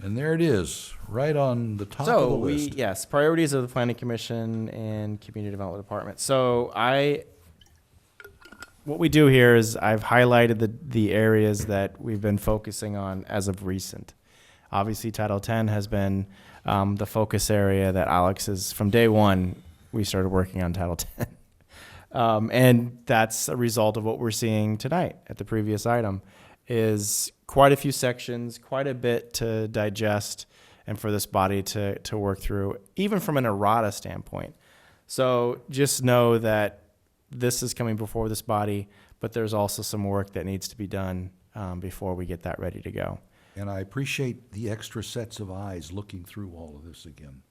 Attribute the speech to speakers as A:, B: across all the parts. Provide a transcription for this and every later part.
A: And there it is, right on the top of
B: So
A: the
B: we
A: list.
B: yes, priorities of the planning commission and community development department. So I what we do here is I've highlighted the the areas that we've been focusing on as of recent. Obviously, Title Ten has been um, the focus area that Alex is from day one. We started working on Title Ten, um, and that's a result of what we're seeing tonight at the previous item. Is quite a few sections, quite a bit to digest, and for this body to to work through, even from an errata standpoint. So just know that this is coming before this body, but there's also some work that needs to be done um, before we get that ready to go.
A: And I appreciate the extra sets of eyes looking through all of this again.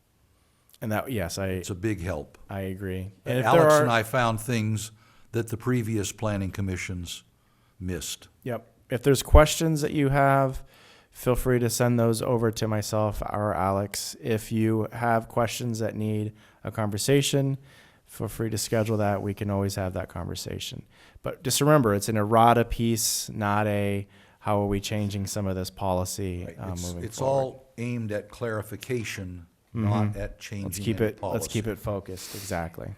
B: And that, yes, I
A: It's a big help.
B: I agree. And if there
A: Alex
B: are,
A: and I found things that the previous planning commissions missed.
B: yep, if there's questions that you have, feel free to send those over to myself or Alex. If you have questions that need a conversation, feel free to schedule that. We can always have that conversation. But just remember, it's an errata piece, not a how are we changing some of this policy uh,
A: It's,
B: moving
A: it's
B: forward. Mm-hmm.
A: all aimed at clarification, not at changing
B: Let's keep
A: any
B: it, let's keep
A: policy.
B: it focused, exactly.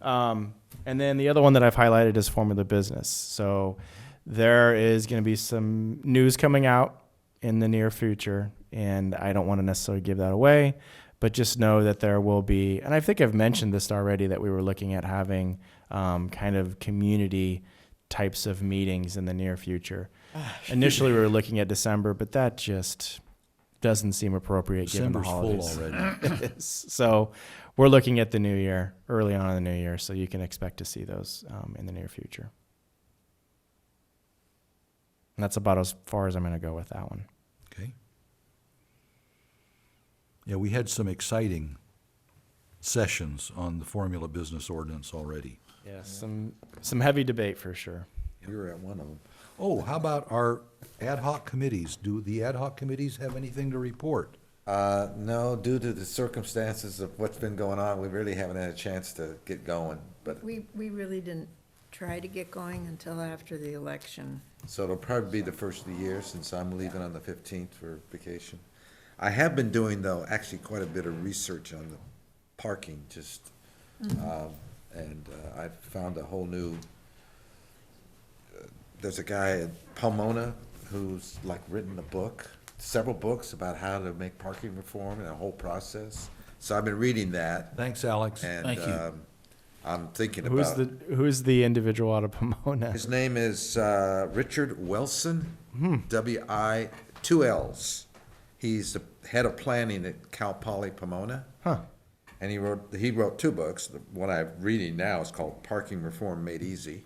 B: Um, and then the other one that I've highlighted is form of the business. So there is going to be some news coming out in the near future, and I don't want to necessarily give that away, but just know that there will be, and I think I've mentioned this already, that we were looking at having um, kind of community types of meetings in the near future.
A: Ah,
B: Initially, we were looking at December, but that just doesn't seem appropriate given the
A: December's full
B: holidays
A: already.
B: is. So we're looking at the new year, early on in the new year, so you can expect to see those um, in the near future. And that's about as far as I'm going to go with that one.
A: Okay. Yeah, we had some exciting sessions on the formula business ordinance already.
B: Yes. Some, some heavy debate for sure.
C: You were at one of them.
A: Oh, how about our ad hoc committees? Do the ad hoc committees have anything to report?
C: Uh, no, due to the circumstances of what's been going on, we really haven't had a chance to get going, but,
D: We, we really didn't try to get going until after the election.
C: so it'll probably be the first of the year since I'm leaving on the fifteenth for vacation. I have been doing though, actually quite a bit of research on the parking, just, um, and uh, I've found a whole new, uh, there's a guy in Pomona who's like written a book, several books about how to make parking reform and a whole process. So I've been reading that.
A: Thanks, Alex.
C: And
E: Thank you.
C: um, I'm thinking
B: Who's
C: about,
B: the, who's the individual out of Pomona?
C: his name is uh, Richard Wilson, W-I, two L's. He's the head of planning at Cal Poly Pomona.
B: Huh.
C: And he wrote, he wrote two books. The one I'm reading now is called Parking Reform Made Easy.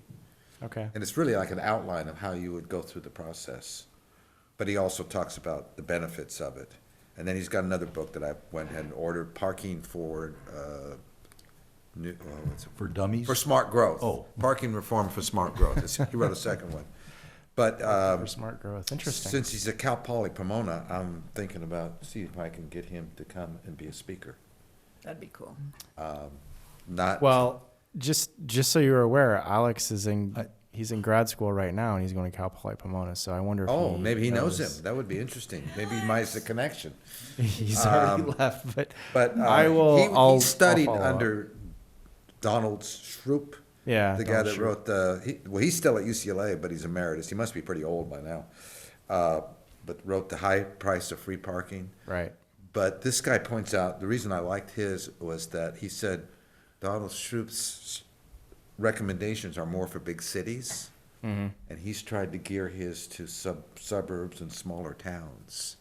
B: Okay.
C: And it's really like an outline of how you would go through the process. But he also talks about the benefits of it. And then he's got another book that I went ahead and ordered, Parking for, uh, New, oh, what's it?
A: For dummies?
C: For smart growth.
A: Oh.
C: Parking reform for smart growth. It's- He wrote a second one. But um,
B: For smart growth. Interesting.
C: since he's a Cal Poly Pomona, I'm thinking about, see if I can get him to come and be a speaker.
D: That'd be cool.
C: Not,
B: Well, just, just so you're aware, Alex is in,
A: I-
B: he's in grad school right now and he's going to Cal Poly Pomona. So I wonder if
C: oh, maybe he knows
B: knows-
C: him. That would be interesting. Maybe he might have a connection.
B: He's already left, but,
C: Um, But uh,
B: I will.
C: he-
B: I'll-
C: He studied
B: I'll follow up.
C: under Donald Shroop.
B: Yeah, Oh,
C: the guy
B: Donald
C: that
B: Shroop.
C: wrote the. He, well, he's still at UCLA, but he's emeritus. He must be pretty old by now. Uh, but wrote the high price of free parking.
B: Right.
C: But this guy points out the reason I liked his was that he said Donald Shroop's recommendations are more for big cities,
B: Mm-hmm.
C: and he's tried to gear his to sub suburbs and smaller towns.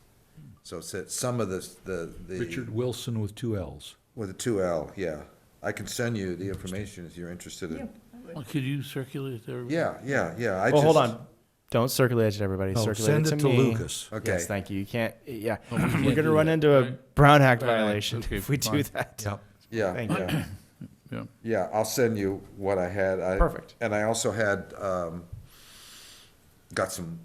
C: So it's that some of the the, the
A: Richard Wilson with two Ls.
C: with a two L, yeah. I can send you the information if you're interested in.
E: Well, Could you circulate it to everybody?
C: Yeah, yeah, yeah. I
B: well, hold
C: just- Oh,
B: on. Don't circulate it to everybody.
A: No,
B: circulate
A: Oh, send
B: it to,
A: it to
B: me.
A: Lucas.
C: Okay.
B: Yes, thank you. You can't. Yeah,
E: Oh, we can't
B: we're gonna
E: do
B: run
E: that,
B: into a
E: right?
B: Brown Act
E: Brown Act,
B: violation
E: okay,
B: if we do
E: fine.
B: that.
A: Yep.
C: Yeah.
B: Thank
C: yeah.
B: you.
E: Yeah.
C: Yeah, I'll send you what I had. I-
B: Perfect.
C: And I also had, um, got some,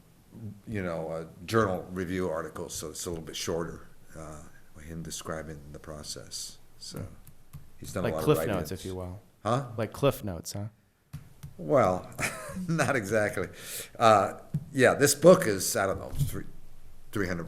C: you know, uh, journal review articles, so it's a little bit shorter, uh, him describing the process, so. He's done a
B: Like
C: lot of
B: cliff
C: writing.
B: notes, if you will.
C: Huh?
B: Like cliff notes, huh?
C: Well, not exactly. Uh, yeah, this book is, I don't know, three, three hundred